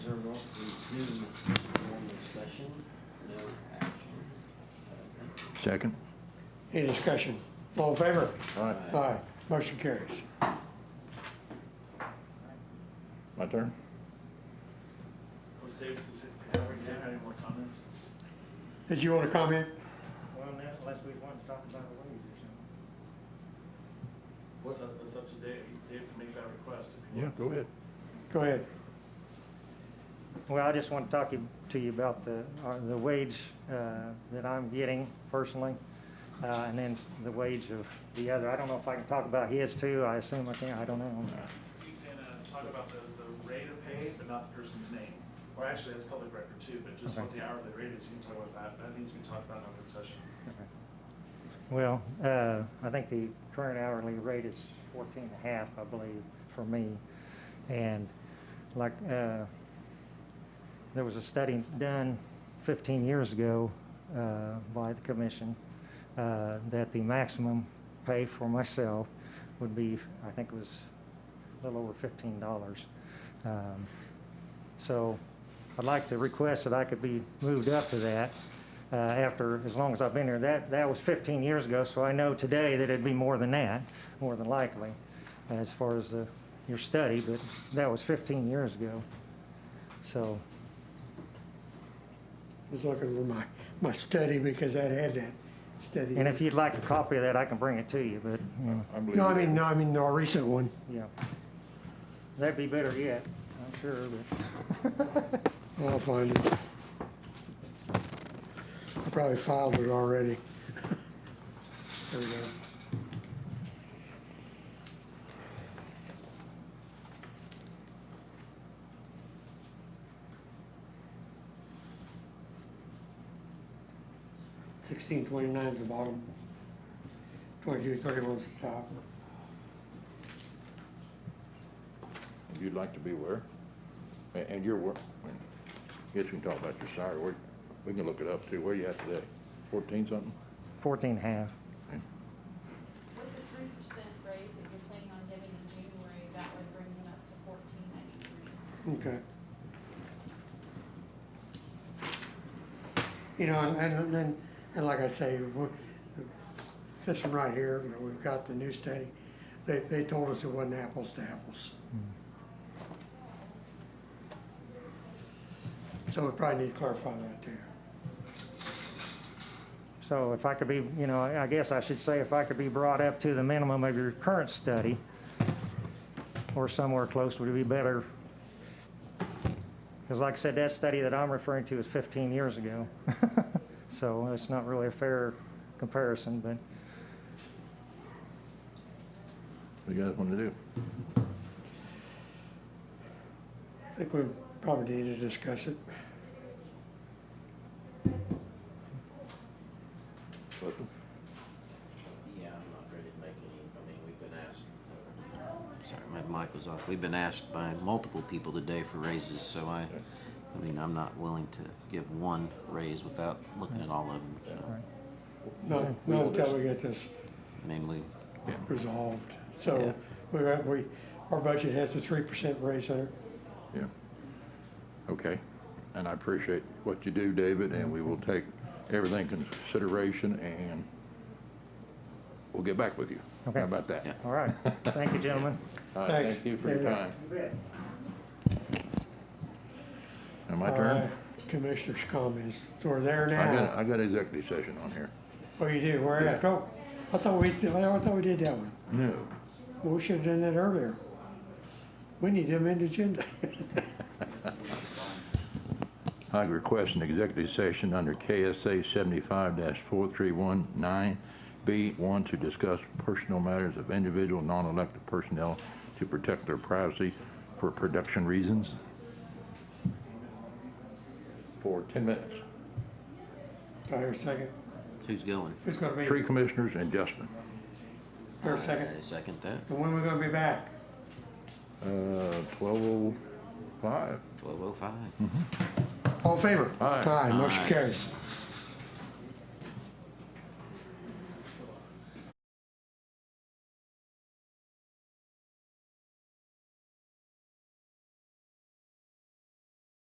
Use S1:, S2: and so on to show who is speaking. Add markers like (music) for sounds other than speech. S1: resume normal session, no action.
S2: Second.
S3: Any discussion? All in favor?
S2: All right,
S3: Aye. Motion carries.
S2: my turn.
S4: Was David, does it, have we had any more comments?
S3: Did you want to comment?
S5: Well, unless unless we want to talk about a wage or something.
S4: What's up, that's up to Dave, Dave can make that request if he
S2: Yeah,
S4: wants.
S2: go ahead.
S3: Go ahead.
S5: Well, I just want to talk you- to you about the, uh, the wage uh, that I'm getting personally, uh, and then the wage of the other. I don't know if I can talk about his too, I assume I can, I don't know.
S4: You can, uh, talk about the, the rate of pay, but not the person's name, or actually, that's public record too, but just what the hourly rate is, you can talk about that, that means you can talk about it in open session.
S5: Well, uh, I think the current hourly rate is fourteen and a half, I believe, for me. And like, uh, there was a study done fifteen years ago, uh, by the commission, uh, that the maximum pay for myself would be, I think it was a little over fifteen dollars. Um, so I'd like to request that I could be moved up to that uh, after, as long as I've been here. That, that was 15 years ago, so I know today that it'd be more than that, more than likely, as far as the- your study, but that was 15 years ago. So,
S3: I was looking for my, my study because I had that study.
S5: and if you'd like a copy of that, I can bring it to you, but, you know,
S2: believe
S3: No, I
S2: you.
S3: mean, no, I mean, our recent one.
S5: yeah. That'd be better yet, I'm sure, but.
S3: I'll find it. I probably filed it already. There we go. Sixteen twenty-nine is the bottom. Twenty-two thirty-one is the top.
S2: You'd like to be where? A- And you're where? Guess we can talk about your salary. Where, we can look it up too. Where you at today? Fourteen something?
S5: 14 and a half.
S6: With the three percent raise that you're planning on giving in January, that would bring it up to fourteen ninety-three.
S3: Okay. You know, and, and, and- and like I say, we- this one right here, you know, we've got the new study, they, they told us it wasn't apples to apples. So we probably need to clarify that too.
S5: So if I could be, you know, I I guess I should say if I could be brought up to the minimum of your current study or somewhere close would be better. Because like I said, that study that I'm referring to is 15 years ago. (laughs) So it's not really a fair comparison, but
S2: What you guys want to do?
S3: I think we probably need to discuss it.
S2: Listen,
S1: Yeah, I'm not ready to make any, I mean, we've been asked, sorry, my mic was off. We've been asked by multiple people today for raises, so I, I mean, I'm not willing to give one raise without looking at all of them, so.
S3: Not,
S2: we
S3: not
S2: will
S3: until
S2: just-
S3: we get this
S1: I mean, we,
S3: resolved.
S1: Yeah.
S3: So we, we, our budget has a three percent raise in it.
S2: Yeah. Okay. And I appreciate what you do, David, and we will take everything in consideration and we'll get back with you.
S5: Okay.
S2: How about that?
S1: Yeah.
S5: all right. Thank you, gentlemen.
S2: All right,
S3: Thanks,
S2: thank you for your
S3: David.
S2: time. Now my turn?
S3: Uh, Commissioners' comments, so we're there
S2: I
S3: now.
S2: got, I got executive session on here.
S3: Oh, you do, where at?
S2: Yeah.
S3: Oh, I thought we, did- I thought we did that one.
S2: No.
S3: Well, we should've done that earlier. We need them in the agenda.
S2: (laughs)
S3: (laughs)
S2: I request an executive session under KSA 75-4319B1 to discuss personal matters of individual non-elected personnel to protect their privacy for production reasons. For 10 minutes.
S3: Do I hear a second?
S1: who's going?
S3: Who's gonna be,
S2: Three commissioners and Justin.
S3: hear a
S1: I
S3: second?
S1: second that,
S3: And when we gonna be back?
S2: Uh, 12:05.
S1: twelve oh five.
S3: All in favor?
S2: Aye.
S3: Aye, motion
S1: Aye.
S3: carries.